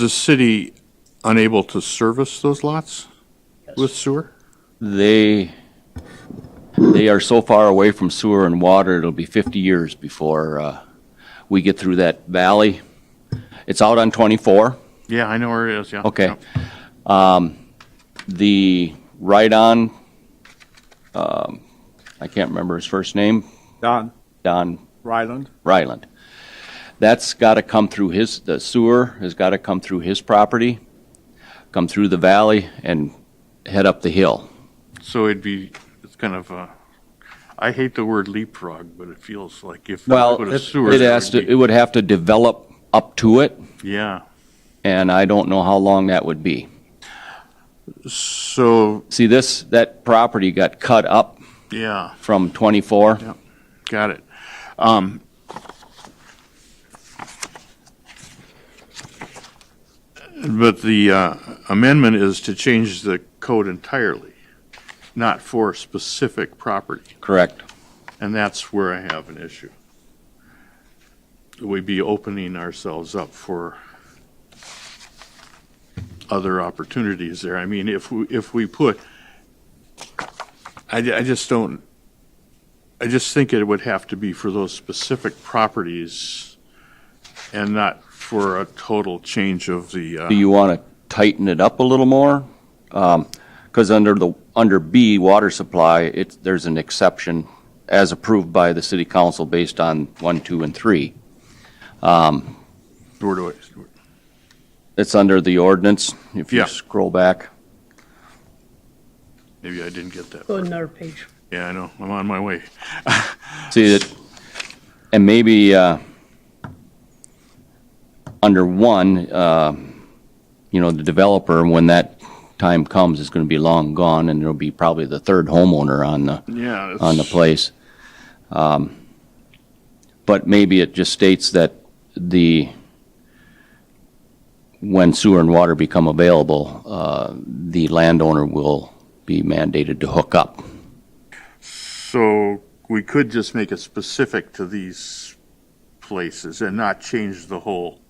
the city unable to service those lots with sewer? They, they are so far away from sewer and water, it'll be 50 years before uh, we get through that valley. It's out on 24, Yeah, I know where it is, yeah. okay. Um, The right-on, um, I can't remember his first name, Don Don Ryland. Ryland. That's got to come through his, the sewer has got to come through his property, come through the valley, and head up the hill. So it'd be, it's kind of a, I hate the word leapfrog, but it feels like if. you Well, put a it sewer, it there has to, would it would have to develop up to it, be- Yeah, and I don't know how long that would be. so, See, this, that property got cut up yeah, from 24. got it. Um, But the uh, amendment is to change the code entirely, not for specific property. Correct. Uh-huh. And that's where I have an issue. We'd be opening ourselves up for other opportunities there. I mean, if we, if we put, I, ju- I just don't, I just think it would have to be for those specific properties and not for a total change of the, Do uh, you want to tighten it up a little more? Because under the, under B, water supply, it's, there's an exception as approved by the city council based on 1, 2, and 3. where do I- It's under the ordinance, if Yeah. you scroll back. maybe I didn't get that. Go to another page. Yeah, I know, I'm on my way. See it, and maybe uh, under one, uh, you know, the developer, when that time comes, is going to be long gone, and there'll be probably the third homeowner on the Yeah. on the it's- place. Um, But maybe it just states that the, when sewer and water become available, uh, the landowner will be mandated to hook up. So we could just make it specific to these places and not change the whole.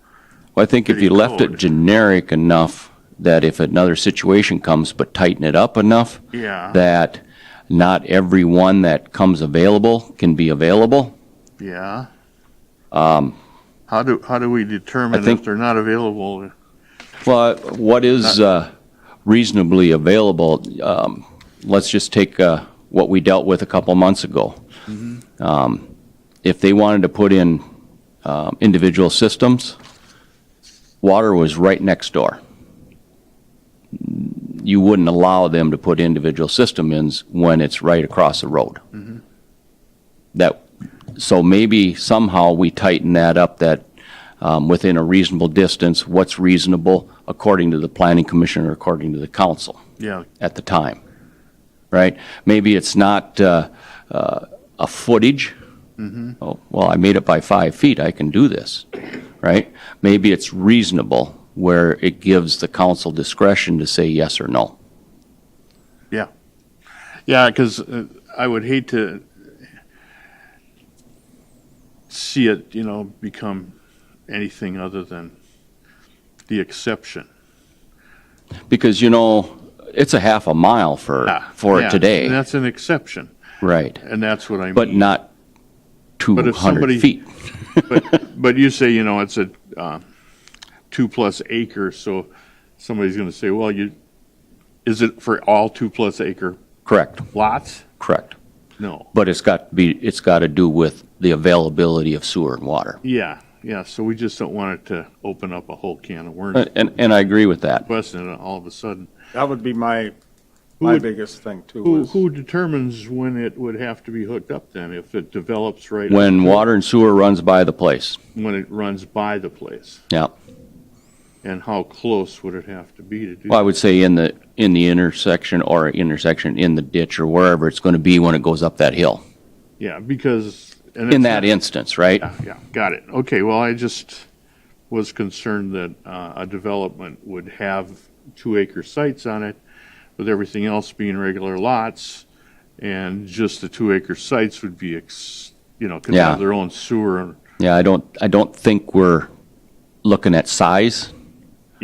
Well, I think if Pretty you left it code. generic enough, that if another situation comes, but tighten it up enough, Yeah, that not everyone that comes available can be available. yeah. How do, how do we determine if Um, think- they're not available? Well, what is uh, reasonably available? Um, Let's just take uh, what we dealt with a couple months ago. Um, If they wanted to put in um, individual systems, water was right next door. You wouldn't allow them to put individual system ins when it's right across the road. That, so maybe somehow we tighten that up, that um, within a reasonable distance, what's reasonable according to the planning commission or according to the council Yeah, at the time, right? Maybe it's not uh, uh, a footage. Mm-hmm. Oh, Well, I made it by five feet, I can do this, right? Maybe it's reasonable where it gives the council discretion to say yes or no. yeah. Yeah, because I would hate to see it, you know, become anything other than the exception. Because, you know, it's a half a mile for, for Ah, Yeah, and today, That's an exception, right? and that's what I mean. But not But if somebody- 200 feet. But, but you say, you know, it's a uh, two-plus acre, so somebody's going to say, well, you, is it for all two-plus acre Correct, lots? correct. No. But it's got to be, it's got to do with the availability of sewer and water. Yeah, yeah, so we just don't want it to open up a whole can of worms, Uh, And- And, and I agree with that. question, and all of a sudden. That would be my, Who my would- biggest thing too Who, is, who determines when it would have to be hooked up then, if it develops right? When water and sewer runs by the place, When it runs by the place? yeah. And how close would it have to be to do? Well, I would say in the, in the intersection or intersection in the ditch or wherever it's going to be when it goes up that hill, Yeah, because. and it's in that not- instance, right? Yeah, yeah, got it. Okay, well, I just was concerned that uh, a development would have two-acre sites on it, with everything else being regular lots, and just the two-acre sites would be, ex- you know, could Yeah. have their own sewer. and- Yeah, I don't, I don't think we're looking at size.